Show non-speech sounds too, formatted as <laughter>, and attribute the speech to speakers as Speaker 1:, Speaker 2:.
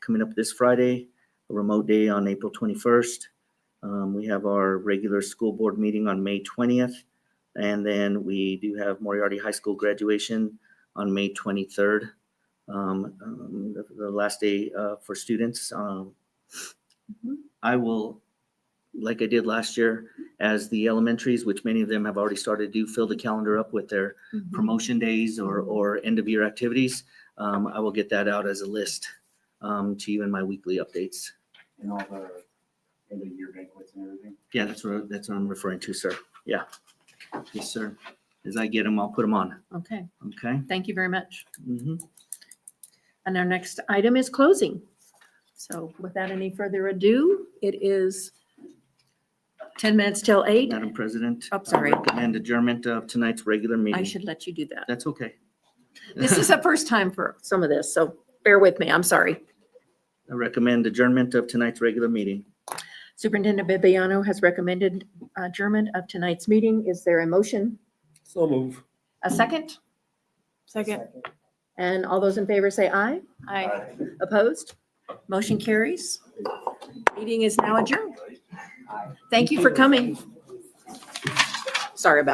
Speaker 1: coming up this Friday, a remote day on April 21st. Um, We have our regular school board meeting on May 20th. And then we do have Moriarty High School graduation on May 23rd. um, um, The the last day uh, for students. Um,
Speaker 2: Mhm.
Speaker 1: I will, like I did last year, as the elementaries, which many of them have already started to do, fill the calendar up with their promotion days or, or end of year activities. Um, I will get that out as a list, um, to you in my weekly updates.
Speaker 3: and all the end of year banquets and everything.
Speaker 1: Yeah, that's what, that's what I'm referring to, sir. Yeah. Yes, sir. As I get them, I'll put them on.
Speaker 2: Okay,
Speaker 1: Okay?
Speaker 2: thank you very much.
Speaker 1: Mhm.
Speaker 2: And our next item is closing. So without any further ado, it is 10 minutes till 8.
Speaker 1: Madam President.
Speaker 2: Oh, sorry.
Speaker 1: I Recommend adjournment of tonight's regular meeting.
Speaker 2: I should let you do
Speaker 1: <laughs>
Speaker 2: that.
Speaker 1: That's okay.
Speaker 2: This is the first time for some of this, so bear with me, I'm sorry.
Speaker 1: I recommend adjournment of tonight's regular meeting.
Speaker 2: Superintendent Bibiano has recommended uh, adjournment of tonight's meeting. Is there a motion?
Speaker 4: So move.
Speaker 2: A second?
Speaker 5: Second.
Speaker 2: And all those in favor say aye.
Speaker 5: Aye.
Speaker 2: Opposed? Motion carries. Meeting is now adjourned. Thank you for coming. Sorry about